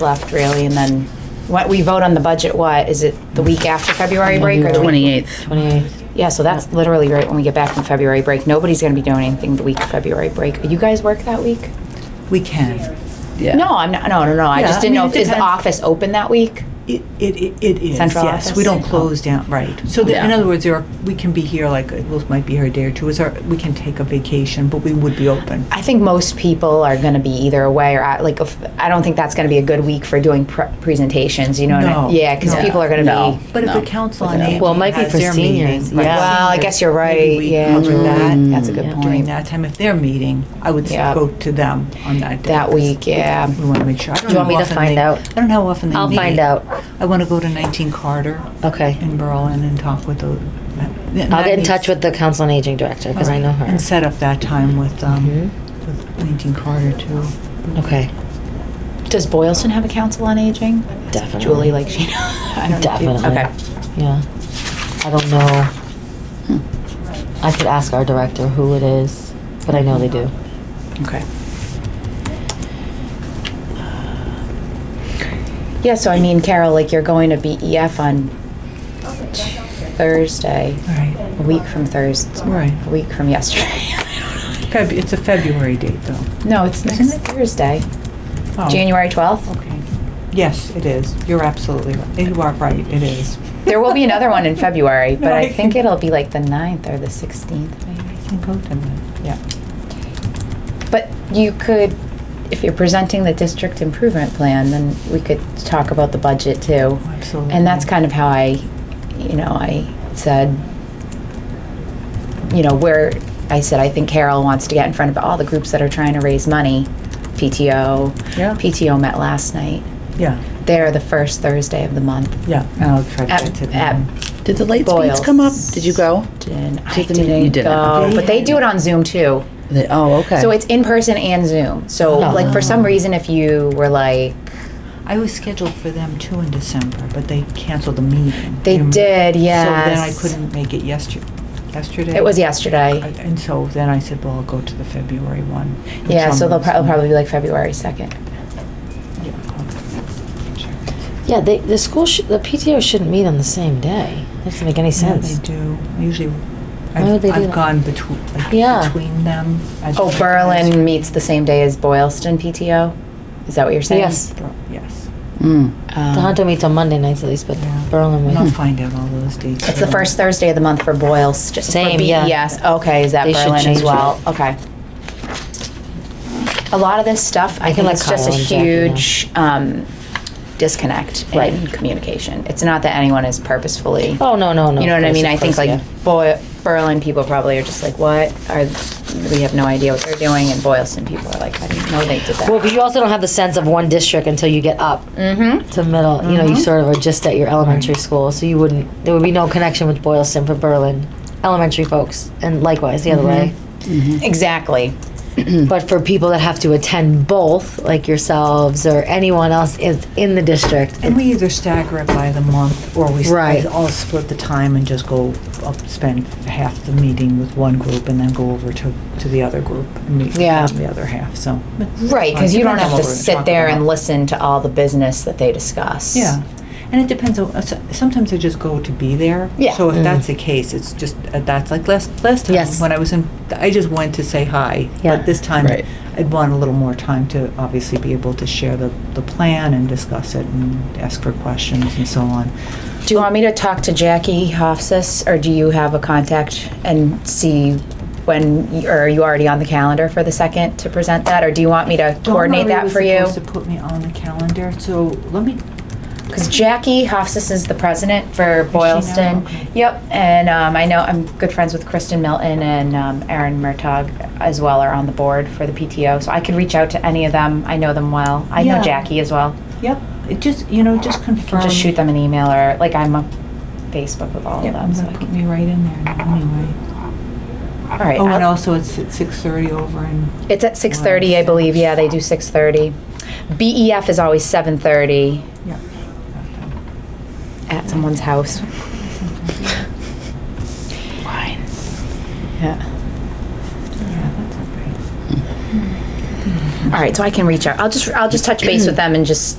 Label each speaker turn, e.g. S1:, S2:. S1: left really, and then what we vote on the budget, what, is it the week after February break or the week?
S2: 28th.
S3: 28th.
S1: Yeah, so that's literally right when we get back from February break. Nobody's gonna be doing anything the week of February break. You guys work that week?
S4: We can.
S2: Yeah.
S1: No, I'm not, no, no, no, I
S4: Yeah,
S1: just
S4: I
S1: didn't know,
S4: mean,
S1: if
S4: it
S1: is the
S4: depends.
S1: office open that week?
S4: It, it, it is,
S1: Central
S4: yes.
S1: office?
S4: We don't close down, right. So the- in
S2: Yeah.
S4: other words, there are, we can be here like, we might be here a day or two. Is our, we can take a vacation, but we would be open.
S1: I think most people are gonna be either away or out, like, if- I don't think that's gonna be a good week for doing pre- presentations, you know? what I-
S4: No.
S1: Yeah, cause
S4: No.
S1: people are gonna
S2: No.
S1: be,
S4: But if
S2: No.
S4: the council on
S2: No.
S4: aging
S3: Well, it might be
S4: has
S3: for
S4: their meeting,
S3: seniors,
S4: right,
S3: yeah.
S1: well, I guess you're
S4: maybe
S1: right,
S4: we
S1: yeah,
S4: cover that
S1: that's a good
S4: During
S1: point.
S4: that time, if they're meeting, I would s-
S1: Yeah.
S4: go to them on that day.
S1: That week, yeah.
S4: We want to make sure. I don't
S3: Do you
S4: know
S3: want me
S4: how
S3: to
S4: often
S3: find
S4: they-
S3: out?
S4: I don't know how often they meet.
S3: I'll find out.
S4: I want to go to 19 Carter
S3: Okay.
S4: in Berlin and talk with the.
S3: I'll get in touch with the Council on Aging Director because I know her.
S4: And set up that time with, um,
S3: Mhm.
S4: with 19 Carter too.
S3: Okay.
S1: Does Boylston have a council on aging?
S3: Definitely.
S1: Julie, like she, I don't know.
S3: Definitely.
S1: Okay.
S3: Yeah. I don't know. I could ask our director who it is, but I know they do.
S1: Okay. Uh, Yeah, so I mean, Carol, like you're going to BEF on Thursday,
S4: All right,
S1: a week from Thursday,
S4: Right.
S1: a week from yesterday.
S4: Feb, it's a February date though.
S1: No, it's next Thursday,
S4: Oh,
S1: January 12th.
S4: Okay. Yes, it is. You're absolutely, right. you are right, it is.
S1: There will be another one in February, but
S4: No,
S1: I
S4: I-
S1: think it'll be like the 9th or the 16th, maybe.
S4: Can go to that, yeah.
S1: But you could, if you're presenting the district improvement plan, then we could talk about the budget
S3: Oh,
S1: too.
S4: Absolutely.
S1: And that's kind of how I, you know, I said, you know, where, I said, I think Carol wants to get in front of all the groups that are trying to raise money. PTO,
S4: Yeah.
S1: PTO met last night.
S4: Yeah,
S1: They're the first Thursday of the month.
S4: yeah, and I'll try to get
S1: At,
S4: to them.
S1: at
S2: Did the lights beats come up? Did you go?
S1: Boylston. I
S2: Did the meeting-
S1: didn't
S2: you didn't.
S1: go, but they do it on Zoom too.
S2: They- oh, okay.
S1: So it's in person and Zoom. So
S2: Oh.
S1: like for some reason, if you were like,
S4: I was scheduled for them too in December, but they canceled the meeting.
S1: They
S4: You remember?
S1: did,
S4: So then I
S1: yes.
S4: couldn't make it yesterday, yesterday?
S1: it was
S4: I-
S1: yesterday.
S4: And so then I said, well, I'll go to the February one. which
S1: Yeah,
S4: I'm
S1: so they'll
S4: gonna-
S1: pro- it'll probably be like February second.
S4: Yeah, okay. Sure.
S3: Yeah, they, the school, sh- the PTO shouldn't meet on the same day. That doesn't make any
S4: Yeah,
S3: sense.
S4: They do, I usually,
S3: would
S4: I've,
S3: they do
S4: I've
S3: that?
S4: gone between, like,
S3: Yeah.
S4: between them. as
S1: Oh,
S4: well as-
S1: Berlin meets the same day as Boylston PTO? Is that what you're saying?
S3: Yes.
S4: Ber- Yes,
S3: the
S1: Um,
S3: Hunter meets on Monday nights at least, but
S4: Yeah.
S3: Berlin
S4: and I'll
S3: would.
S4: find out all those dates.
S1: It's the
S4: for-
S1: first Thursday of the month for Boylston. for
S3: Same, yeah.
S1: BES. Okay, is that
S3: They should
S1: Berlin as
S3: change
S1: well? Okay. A lot of this stuff, I
S3: I
S1: think
S3: can let
S1: it's just a
S3: Kyle and Jackie know.
S1: huge um, disconnect in
S3: Right.
S1: communication. It's not that anyone is purposefully.
S3: Oh, no, no, no.
S1: You know
S3: of
S1: what I
S3: course,
S1: mean?
S3: of
S1: I think
S3: course,
S1: like Boy- Berlin people probably are just like, what? Are, we have no idea what they're doing. And Boylston people are like, I didn't know they did
S3: yeah. Well,
S1: that.
S3: but you also don't have the sense of one district until you get up
S1: Mm-hmm.
S3: to middle. You know, you sort of are just at your elementary school, so you wouldn't. There would be no connection with Boylston for Berlin elementary folks, and likewise the other way.
S1: Mm-hmm. Exactly.
S3: But for people that have to attend both, like yourselves or anyone else is in the district,
S4: And we either stagger it by the month, or we s-
S3: Right.
S4: all split the time and just go up, spend half the meeting with one group and then go over to, to the other group and meet with
S1: Yeah.
S4: them the other half, so.
S1: Right, because you don't
S4: Depends
S1: have
S4: on
S1: to
S4: what we're
S1: sit
S4: talking
S1: there
S4: about.
S1: and listen to all the business that they discuss.
S4: Yeah, and it depends on, s- sometimes I just go to be there.
S1: Yeah.
S4: So if that's the case, it's just, uh, that's like last, last time.
S3: Yes.
S4: When I was in, I just went to say hi.
S3: Yeah.
S4: But this time,
S2: Right.
S4: I'd want a little more time to obviously be able to share the, the plan and discuss it and ask for questions and so on.
S1: Do you want me to talk to Jackie Hofsis, or do you have a contact and see when, y- or are you already on the calendar for the second to present that, or do you want me to
S4: Dawn
S1: coordinate
S4: Marie
S1: that
S4: was
S1: for you?
S4: supposed to put me on the calendar, so let me,
S1: Because Jackie Hofsis is the president for Boylston.
S4: Okay.
S1: Yep, and um, I know I'm good friends with Kristen Milton and um, Aaron Murtaugh as well are on the board for the PTO, so I could reach out to any of them. I know them well. I know
S4: Yeah.
S1: Jackie as well.
S4: yep, it just, you know, just confirm.
S1: just shoot them an email or like I'm on Facebook with all
S4: Yep,
S1: of them.
S4: I'm
S1: So I
S4: gonna put
S1: can,
S4: me right in there now anyway.
S1: all right.
S4: Oh, and
S1: I'll-
S4: also it's at six thirty over in
S1: it's at six thirty, I believe. Yeah, they do six thirty. BEF is always seven thirty
S4: yeah.
S1: at someone's house.
S2: Fine.
S1: Yeah.
S4: Yeah, that's all right.
S1: All right, so I can reach out. I'll just I'll just touch base with them and just